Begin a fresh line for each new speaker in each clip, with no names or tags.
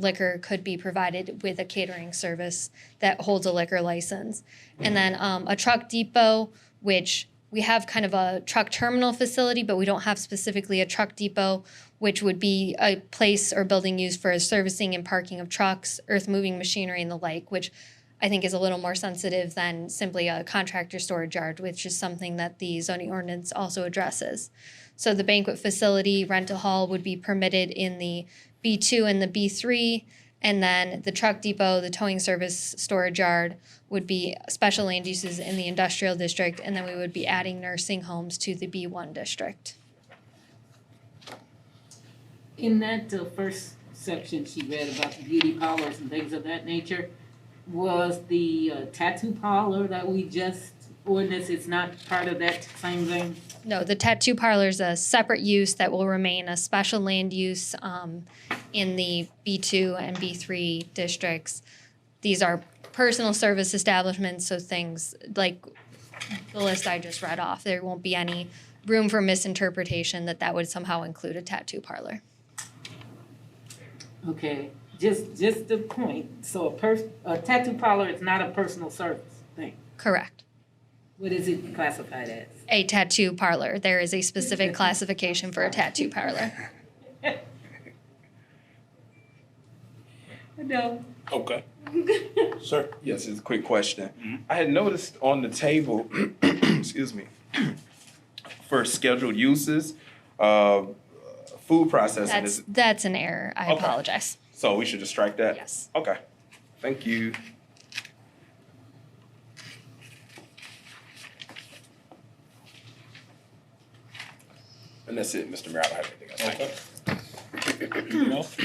liquor could be provided with a catering service that holds a liquor license. And then um, a truck depot, which we have kind of a truck terminal facility, but we don't have specifically a truck depot, which would be a place or building used for servicing and parking of trucks, earth moving machinery, and the like, which I think is a little more sensitive than simply a contractor storage yard, which is something that the zoning ordinance also addresses. So the banquet facility rental hall would be permitted in the B2 and the B3. And then the truck depot, the towing service storage yard would be special land uses in the industrial district. And then we would be adding nursing homes to the B1 district.
In that uh, first section she read about the beauty parlors and things of that nature, was the uh, tattoo parlor that we just ordinance, it's not part of that same thing?
No, the tattoo parlor is a separate use that will remain a special land use um, in the B2 and B3 districts. These are personal service establishments, so things like the list I just read off. There won't be any room for misinterpretation that that would somehow include a tattoo parlor.
Okay, just, just the point, so a pers- a tattoo parlor is not a personal service thing.
Correct.
What is it classified as?
A tattoo parlor. There is a specific classification for a tattoo parlor.
No.
Okay. Sir? Mm-hmm.
Yes, it's a quick question. I had noticed on the table, excuse me, for scheduled uses, uh, food processing
That's,
is,
that's an error. I
Okay.
apologize.
so we should just strike that?
Yes.
Okay, thank you. And that's it, Mr. Mayor, I don't have anything else. Thank you.
Okay. Anything else?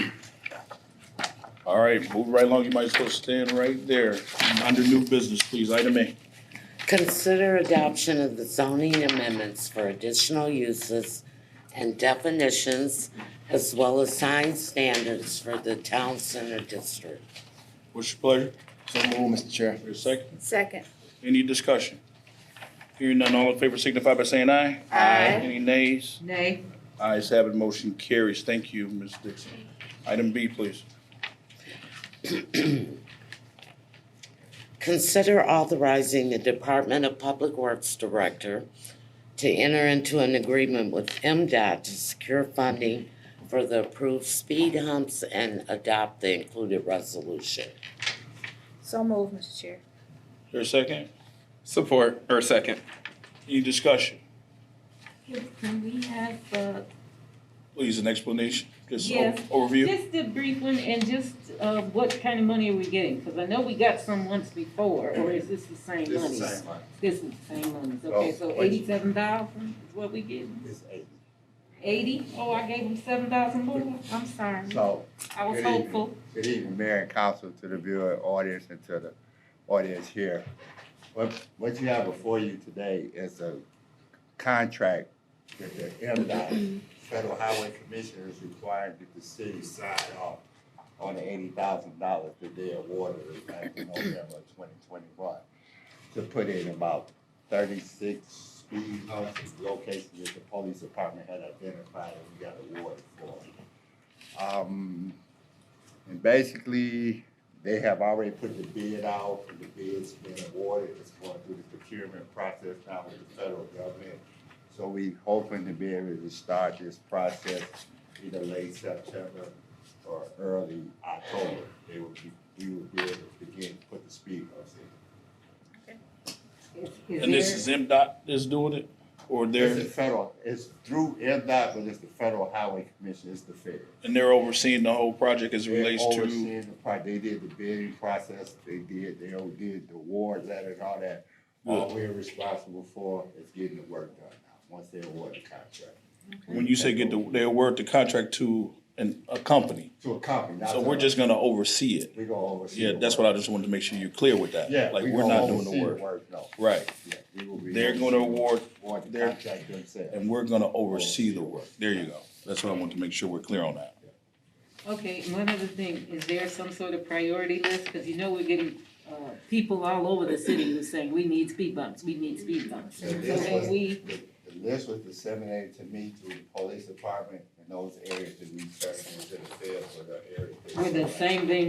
All right, move right along. You might as well stand right there. Under new business, please, item A.
Consider adoption of the zoning amendments for additional uses and definitions as well as sign standards for the town center district.
What's your pleasure?
So move, Mr. Chair.
Your second?
Second.
Any discussion? Hearing none, all in favor signify by saying aye.
Aye.
Any nays?
Nay,
Ayes have it, motion carries. Thank you, Ms. Dixon. Item B, please.
Consider authorizing the Department of Public Works Director to enter into an agreement with MDOT to secure funding for the approved speed humps and adopt the included resolution.
So move, Mr. Chair.
Your second?
Support, or second.
Any discussion?
can can we have, uh,
Please, an explanation, just o-
Yes.
overview.
Just a brief one, and just, uh, what kind of money are we getting? Cause I know we got some once before, or is this the same Oh, money? This is the same one, okay, so eighty-seven thousand is what we getting?
It's eight.
Eighty? Oh, I gave him seven thousand more, I'm sorry,
So,
I was
Good evening.
hopeful.
good evening, Mayor and Council, to the viewer audience and to the audience here. What, what you have before you today is a contract that the MDOT, Federal Highway Commission is requiring that the city sign off on the eighty thousand dollars that they awarded us back in November twenty twenty-one to put in about thirty-six speed humps and locations that the police department had identified and we got awarded for. Um, and basically, they have already put the bid out, and the bid's been awarded, it's going through the procurement process now with the federal government. So we hoping to be able to start this process either late September or early October. They will be, we will be able to begin to put the speed humps in.
Is-
And this is
there-
MDOT that's doing it, or
It's
they're,
the federal, it's through MDOT, but it's the Federal Highway Commission, it's the federal.
and they're overseeing the whole project as it
They're
relates to,
overseeing the pro- They did the bidding process, they did, they all did the award letter and all that. All we're responsible for is getting the work done now, once they award the contract.
when you say get the, they award the contract to an, a company.
To a company. not
So
to
we're
us.
just gonna oversee it.
We gonna oversee.
Yeah,
the
that's
work.
what I just wanted to make sure you're clear with that.
Yeah.
Like,
we
we're
gonna
not doing the
oversee
work.
no.
Right.
Yeah, we will be.
They're gonna award,
Award the
their-
contract themselves.
and we're gonna oversee the work. There you go. That's what I want to make sure we're clear on that.
Okay, and one other thing, is there some sort of priority list? Cause you know we're getting, uh, people all over the city who's saying, we need speed bumps, we need speed bumps. So
So this was-
when we,
The the list was disseminated to me through the police department and those areas that we turn into the field for the areas. that-
With the same thing